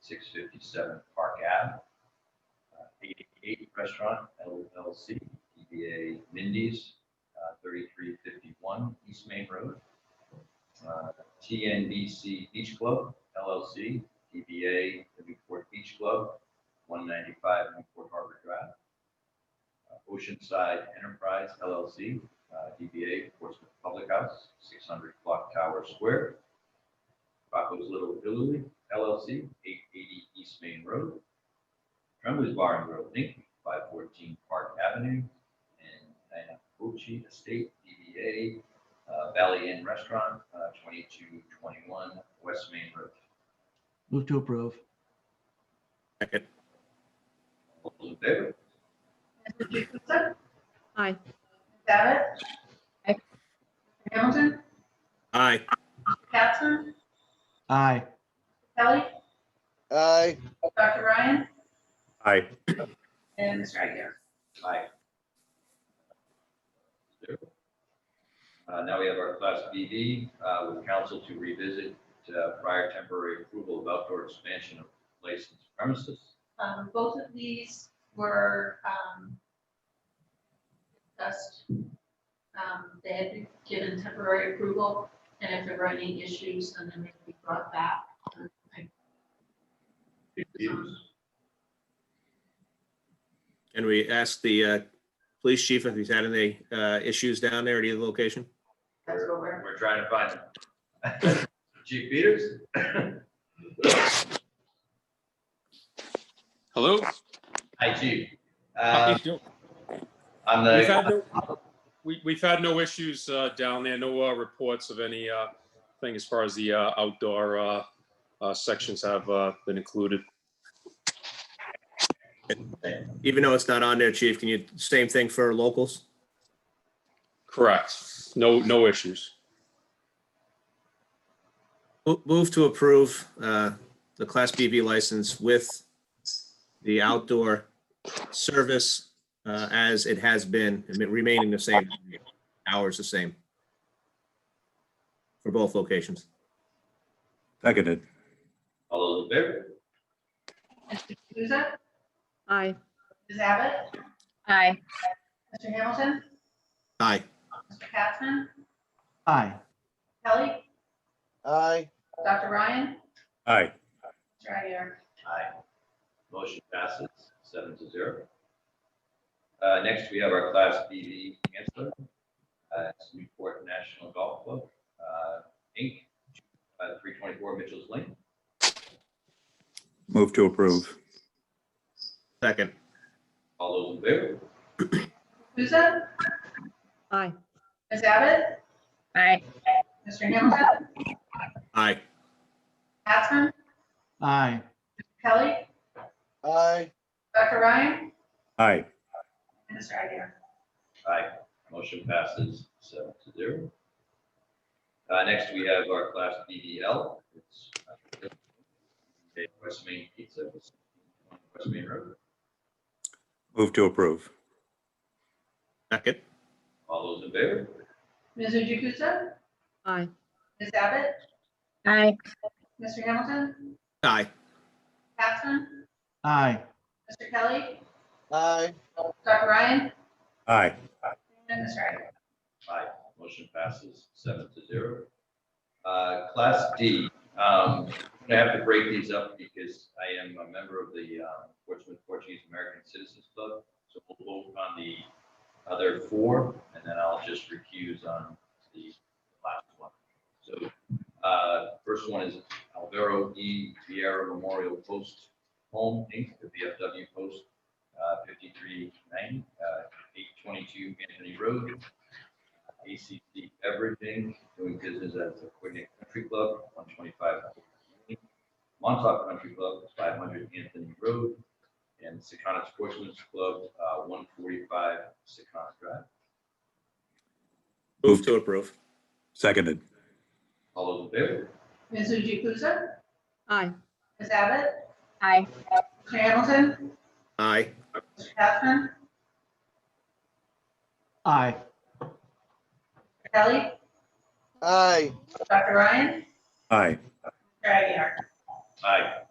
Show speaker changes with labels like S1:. S1: six fifty-seven Park Ave. Uh, Eighty-eight Restaurant LLC, DBA Mindy's, uh, thirty-three fifty-one East Main Road. Uh, TNBC Beach Club LLC, DBA Newport Beach Club, one ninety-five Newport Harbor Drive. Uh, Oceanside Enterprise LLC, uh, DBA Portsmouth Public House, six hundred Clock Tower Square. Rocco's Little Italy LLC, eight eighty East Main Road. Tremblay's Bar and Grill Inc., five fourteen Park Avenue, and Diana Bucci Estate, DBA uh, Valley Inn Restaurant, uh, twenty-two twenty-one West Main Road.
S2: Move to approve.
S3: Second.
S1: All those in favor?
S4: Mrs. Jacobson?
S5: Aye.
S4: Ms. Abbott?
S5: Aye.
S4: Mr. Hamilton?
S3: Aye.
S4: Capson?
S2: Aye.
S4: Kelly?
S6: aye,
S4: Dr. Ryan?
S3: Aye.
S4: And Mr. Aguirre?
S1: Aye. Uh, Now we have our Class BV uh, with council to revisit uh, prior temporary approval of outdoor expansion of licensed premises.
S4: Um, both of these were, um, discussed. Um, they had been given temporary approval, and if there were any issues, then they may be brought back. Um, I-
S3: And we asked the uh, police chief if he's had any uh, issues down there at either location.
S4: That's what we're,
S1: We're trying to find them. Chief Peters?
S7: Hello?
S1: Hi, Chief.
S7: How
S1: Uh,
S7: you doing?
S1: On
S7: We've
S1: the,
S7: had no- we- We've had no issues uh, down there, no uh, reports of any uh, thing as far as the uh, outdoor uh, uh, sections have uh, been included.
S3: Even though it's not on there, chief, can you, same thing for locals?
S7: Correct. No, no issues.
S3: Mo- Move to approve uh, the Class BV license with the outdoor service uh, as it has been, remaining the same, hours the same for both locations.
S8: Seconded.
S1: all those in favor?
S4: Mr. Jukusa?
S5: Aye.
S4: Ms. Abbott?
S5: Aye.
S4: Mr. Hamilton?
S3: Aye.
S4: Mr. Capson?
S2: Aye.
S4: Kelly?
S6: aye,
S4: Dr. Ryan?
S8: Aye.
S4: Mr. Aguirre?
S1: Aye. Motion passes seven to zero. Uh, Next, we have our Class BV Chancellor. Uh, It's Newport National Golf Club, uh, Inc., uh, 324 Mitchell's Lane.
S8: Move to approve.
S3: Second.
S1: All those in favor?
S4: Jukusa?
S5: Aye.
S4: Ms. Abbott?
S5: Aye.
S4: Mr. Hamilton?
S3: Aye.
S4: Capson?
S2: Aye.
S4: Kelly?
S6: aye,
S4: Dr. Ryan?
S8: Aye.
S4: And Mr. Aguirre?
S1: Aye. Motion passes seven to zero. Uh, Next, we have our Class BDL. It's uh, West Main Pizza, West Main Road.
S8: Move to approve.
S3: Second.
S1: All those in favor?
S4: Mr. Jukusa?
S5: Aye.
S4: Ms. Abbott?
S5: Aye.
S4: Mr. Hamilton?
S3: Aye.
S4: Capson?
S2: Aye.
S4: Mr. Kelly?
S6: aye,
S4: Dr. Ryan?
S8: Aye.
S4: And Mr. Aguirre?
S1: Aye. Motion passes seven to zero. Uh, Class D, um, I have to break these up because I am a member of the um, Portsmouth Portuguese American Citizens Club. So we'll vote on the other four, and then I'll just recuse on the last one. So uh, first one is Alvaro E. Vieira Memorial Post Home, Inc., the VFW Post, uh, 5390, 822 Anthony Road. ACC Beverage Inc., doing business as the Coordinate Country Club, one twenty-five. Montauk Country Club, five hundred Anthony Road, and Secana Sportsman's Club, uh, one forty-five Secana Drive.
S3: Move to approve.
S8: Seconded.
S1: All those in favor?
S4: Mr. Jukusa?
S5: Aye.
S4: Ms. Abbott?
S5: Aye.
S4: Mr. Hamilton?
S3: Aye.
S4: Mr. Capson?
S2: Aye.
S4: Kelly?
S6: aye.
S4: Dr. Ryan?
S8: Aye.
S4: Mr. Aguirre?
S1: Aye.